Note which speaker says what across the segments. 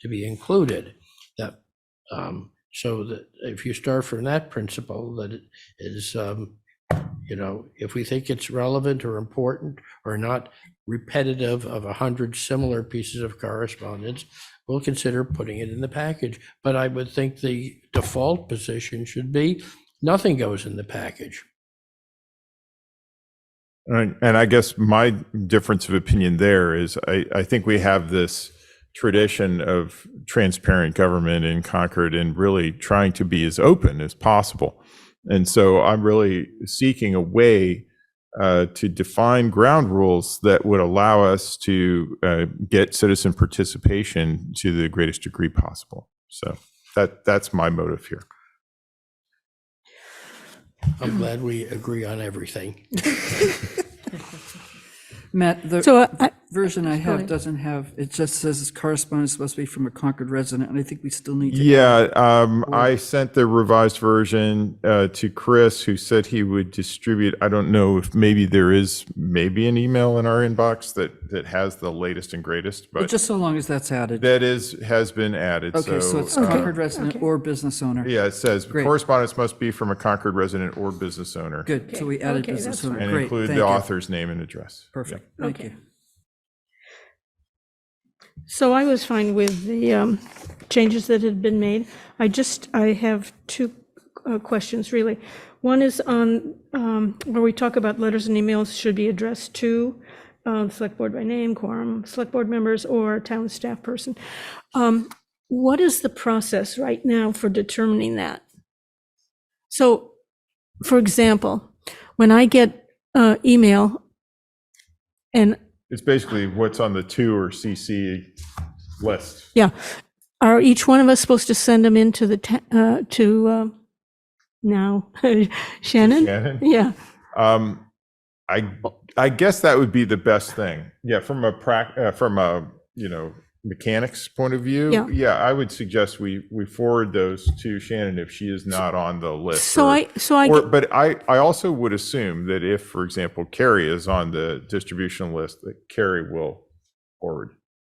Speaker 1: to be included. That, um, so that if you start from that principle, that it is, um, you know, if we think it's relevant or important or not repetitive of a hundred similar pieces of correspondence, we'll consider putting it in the package. But I would think the default position should be nothing goes in the package.
Speaker 2: And, and I guess my difference of opinion there is I, I think we have this tradition of transparent government in Concord and really trying to be as open as possible. And so I'm really seeking a way uh, to define ground rules that would allow us to uh, get citizen participation to the greatest degree possible. So that that's my motive here. Mm-hmm.
Speaker 1: I'm glad we agree on everything.
Speaker 3: Matt, the
Speaker 4: So uh, I,
Speaker 3: version I
Speaker 4: sorry.
Speaker 3: have doesn't have, it just says correspondence must be from a Concord resident, and I think we still need to.
Speaker 2: Yeah, um, I sent the revised version uh, to Chris, who said he would distribute. I don't know if maybe there is maybe an email in our inbox that that has the latest and greatest, but
Speaker 3: Just so long as that's added.
Speaker 2: that is has been added.
Speaker 3: Okay, so it's
Speaker 2: uh,
Speaker 3: Concord resident or business owner.
Speaker 2: yeah, it says correspondence must be from a Concord resident or business owner,
Speaker 3: Good, so we added business owner.
Speaker 2: and
Speaker 3: Great,
Speaker 2: include
Speaker 3: thank
Speaker 2: the
Speaker 3: you.
Speaker 2: author's name and address.
Speaker 3: Perfect, thank
Speaker 4: Okay.
Speaker 3: you.
Speaker 4: so I was fine with the um, changes that had been made. I just, I have two uh, questions, really. One is on, um, where we talk about letters and emails should be addressed to um, select board by name, quorum, select board members, or town staff person. Um, What is the process right now for determining that? So, for example, when I get uh, email, and
Speaker 2: It's basically what's on the to or CC list.
Speaker 4: Yeah. Are each one of us supposed to send them into the, ta- uh, to, uh, now, Shannon?
Speaker 2: Shannon?
Speaker 4: Yeah,
Speaker 2: Um, I I guess that would be the best thing. Yeah, from a prac, uh, from a you know mechanics point of view.
Speaker 4: Yeah.
Speaker 2: I would suggest we we forward those to Shannon if she is not on the list.
Speaker 4: so
Speaker 2: or-
Speaker 4: I, so I,
Speaker 2: Or,
Speaker 4: get-
Speaker 2: but I I also would assume that if, for example, Carrie is on the distribution list, that Carrie will forward.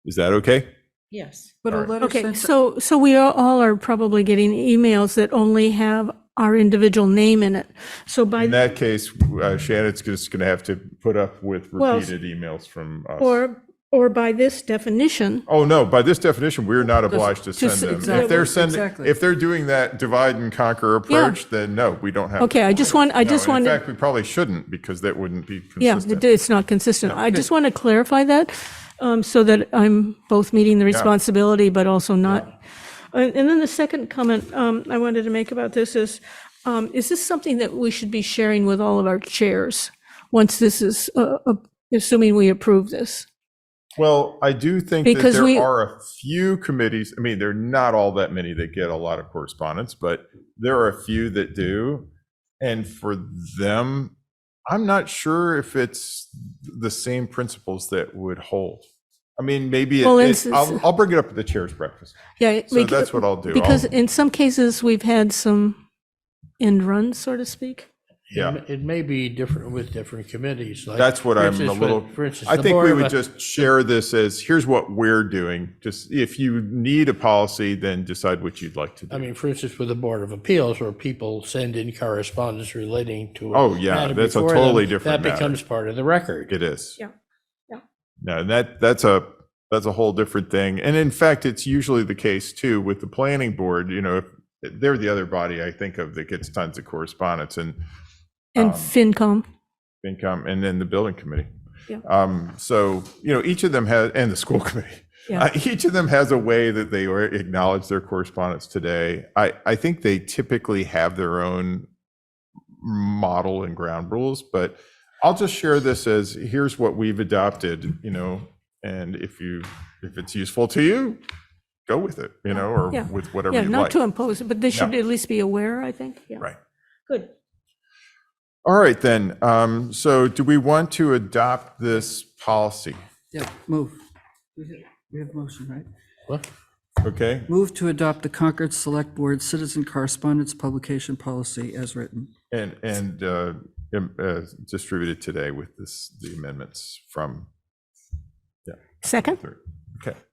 Speaker 2: Is that okay?
Speaker 5: Yes.
Speaker 3: But a
Speaker 2: All right.
Speaker 3: letter
Speaker 4: okay,
Speaker 3: sent-
Speaker 4: so, so we are- all are probably getting emails that only have our individual name in it. So
Speaker 2: In
Speaker 4: by,
Speaker 2: that case, uh, Shannon's just going to have to put up with
Speaker 4: Well,
Speaker 2: repeated emails from us.
Speaker 4: or, or by this definition,
Speaker 2: Oh, no, by this definition, we're not obliged to
Speaker 3: just-
Speaker 2: send them.
Speaker 3: exactly,
Speaker 2: If they're sending,
Speaker 3: exactly.
Speaker 2: if they're doing that divide and conquer approach, then no, we don't have.
Speaker 4: okay, I just want, I
Speaker 2: No,
Speaker 4: just
Speaker 2: and
Speaker 4: want,
Speaker 2: In fact, we probably shouldn't because that wouldn't be
Speaker 4: yeah,
Speaker 2: consistent.
Speaker 4: it- it's not consistent. I just want to clarify that, um, so that I'm both meeting the responsibility, but also not And and then the second comment um, I wanted to make about this is, um, is this something that we should be sharing with all of our chairs? Once this is, uh, uh, assuming we approve this?
Speaker 2: Well, I do think that
Speaker 4: Because we-
Speaker 2: there are a few committees, I mean, there are not all that many that get a lot of correspondence, but there are a few that do. And for them, I'm not sure if it's the same principles that would hold. I mean, maybe, it-
Speaker 4: Well,
Speaker 2: it-
Speaker 4: it's-
Speaker 2: I'll, I'll bring it up at the chair's breakfast.
Speaker 4: Yeah.
Speaker 2: So that's what I'll do.
Speaker 4: Because
Speaker 2: I'll-
Speaker 4: in some cases, we've had some end runs, so to speak.
Speaker 2: Yeah.
Speaker 1: It- It may be different with different committees. like,
Speaker 2: That's what
Speaker 1: for
Speaker 2: I'm a
Speaker 1: instance,
Speaker 2: little,
Speaker 1: with- for instance,
Speaker 2: I
Speaker 1: the
Speaker 2: think
Speaker 1: Board
Speaker 2: we
Speaker 1: of
Speaker 2: would
Speaker 1: Ed-
Speaker 2: just share this as, here's what we're doing. Just if you need a policy, then decide what you'd like to
Speaker 1: I
Speaker 2: do.
Speaker 1: mean, for instance, with the Board of Appeals, where people send in correspondence relating to. a
Speaker 2: Oh, yeah,
Speaker 1: matter
Speaker 2: that's a
Speaker 1: before them,
Speaker 2: totally different
Speaker 1: That
Speaker 2: matter.
Speaker 1: becomes part of the record.
Speaker 2: It is.
Speaker 4: Yeah. Yeah.
Speaker 2: No, and that, that's a, that's a whole different thing. And in fact, it's usually the case too with the planning board, you know, if- they're the other body I think of that gets tons of correspondence and
Speaker 4: And
Speaker 2: Um,
Speaker 4: FinCom,
Speaker 2: income and then the building committee.
Speaker 4: Yeah.
Speaker 2: Um, so, you know, each of them has, and the school committee.
Speaker 4: Yeah.
Speaker 2: Uh, Each of them has a way that they or- acknowledge their correspondence today. I, I think they typically have their own model and ground rules, but I'll just share this as, here's what we've adopted, you know, and if you, if it's useful to you, go with it, you know, or
Speaker 4: Yeah.
Speaker 2: with whatever
Speaker 4: yeah,
Speaker 2: you
Speaker 4: not
Speaker 2: like.
Speaker 4: to impose, it, but they should
Speaker 2: No.
Speaker 4: at least be aware, I think, yeah.
Speaker 2: Right.
Speaker 4: Good.
Speaker 2: All right, then. Um, so do we want to adopt this policy?
Speaker 3: Yeah, move. We have- We have motion, right?
Speaker 1: What?
Speaker 2: Okay,
Speaker 3: Move to adopt the Concord Select Board Citizen Correspondence Publication Policy as written.
Speaker 2: And, and uh, im- uh, distributed today with this, the amendments from,
Speaker 4: Second?
Speaker 2: third. okay.